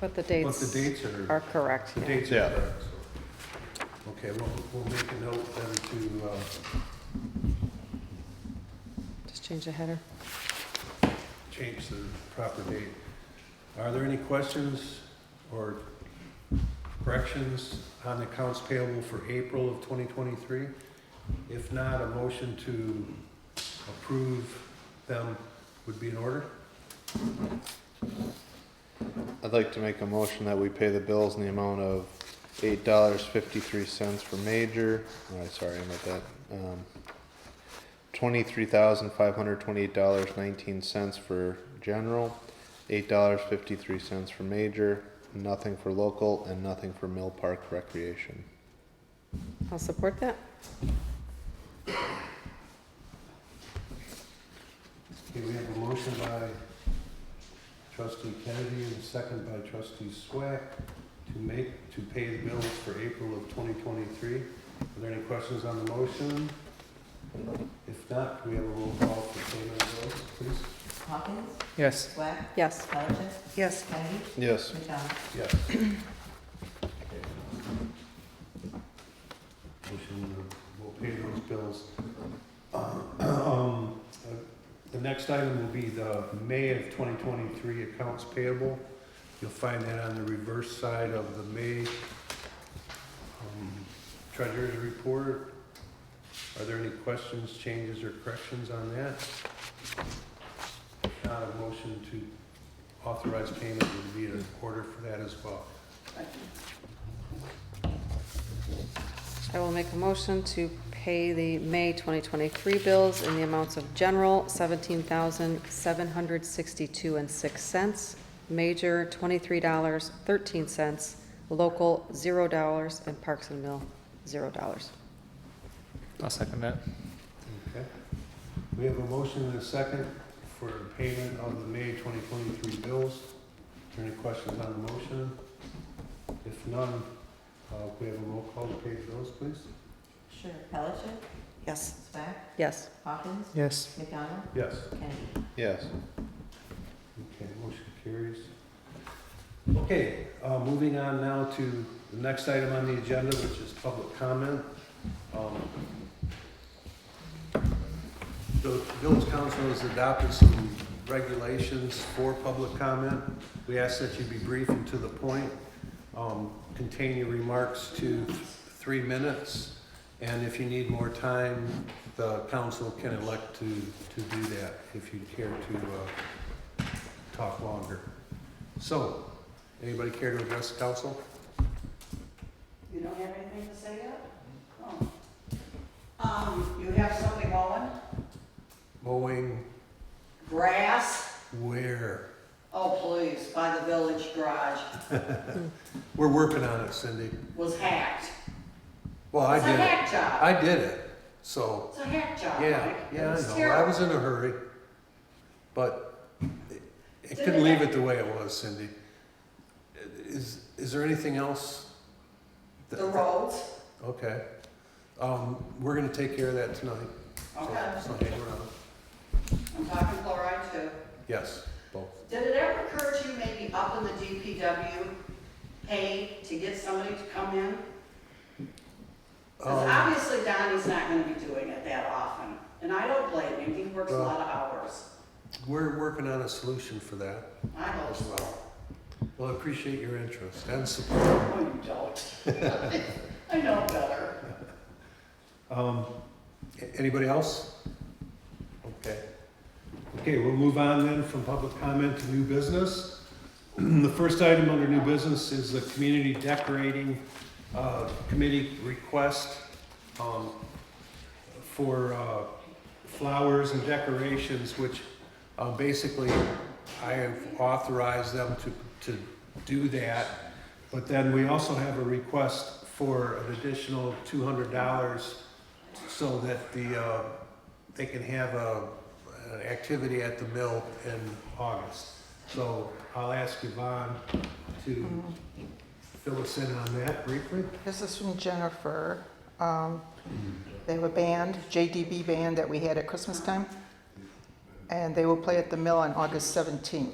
But the But the dates dates are, are correct, the yeah. dates are Yeah. correct, so. Okay, we'll, we'll make a note then to, uh, Just change the header. change the proper date. Are there any questions or corrections on the accounts payable for April of 2023? If not, a motion to approve them would be in order. I'd like to make a motion that we pay the bills in the amount of eight dollars fifty-three cents for major, oh, sorry about that, um, twenty-three thousand five hundred twenty-eight dollars nineteen cents for general, eight dollars fifty-three cents for major, nothing for local, and nothing for Mill Park Recreation. I'll support that. Okay, we have a motion by trustee Kennedy and a second by trustee Swack to make, to pay the bills for April of 2023. Are there any questions on the motion? If not, can we have a roll call for payment of bills, please? Hawkins, Yes. Swack, Yes. Pellicet, Yes. Kennedy, Yes, McDonald. Yes. Motion, uh, we'll pay those bills. Uh, Um, uh, The next item will be the May of 2023 accounts payable. You'll find that on the reverse side of the May um, treasurer's report. Are there any questions, changes, or corrections on that? If Not a motion to authorized payment would be in order for that as well. I will make a motion to pay the May 2023 bills in the amounts of general, $17,762 and 6 cents, major, $23.13, local, $0, and Parks and Mill, $0. I'll second that. Okay. We have a motion and a second for payment of the May 2023 bills. Are there any questions on the motion? If none, uh, we have a roll call to pay the bills, please. Sure. Pellicet, Yes. Swack, Yes. Hawkins, Yes. McDonald, Yes. Kennedy. yes. Okay, motion carries. Okay, uh, moving on now to the next item on the agenda, which is public comment. Um, The village council has adopted some regulations for public comment. We ask that you be brief and to the point. Um, Contain your remarks to three minutes, and if you need more time, the council can elect to, to do that if you care to uh, talk longer. So, anybody care to address the council? You don't have anything to say yet? Oh. Um, you have something going? Mowing Grass? where? Oh, please, by the village garage, We're working on it, Cindy. was hacked. Well, I It's a did it. hack job. I did it. So, It's a hack job, yeah, Mike. yeah, It's I know. I terrible. was in a hurry. But it- it couldn't leave it the way it was, Cindy. Is, is there anything else? that- The roads, Okay. Um, we're gonna take care of that tonight. So- okay, So hang around. I'm talking fluoride too. Yes, both. Did it ever occur to you maybe up in the DPW pay to get somebody to come in? Because Um, obviously Donnie's not gonna be doing it that often, and I don't blame him, he works a Well- lot of hours. We're working on a solution for that. I hope as so. well. Well, I appreciate your interest and support. No, you don't. I know better. Um, a- anybody else? Okay. Okay, we'll move on then from public comment to new business. The first item under new business is the community decorating, uh, committee request, um, for, uh, flowers and decorations, which, uh, basically I have authorized them to, to do that. But then we also have a request for an additional two hundred dollars so that the, uh, they can have a, an activity at the mill in August. So I'll ask Yvonne to fill us in on that briefly. This is from Jennifer. Um, They have a band, JDB band, that we had at Christmas time, and they will play at the Mill on August 17th.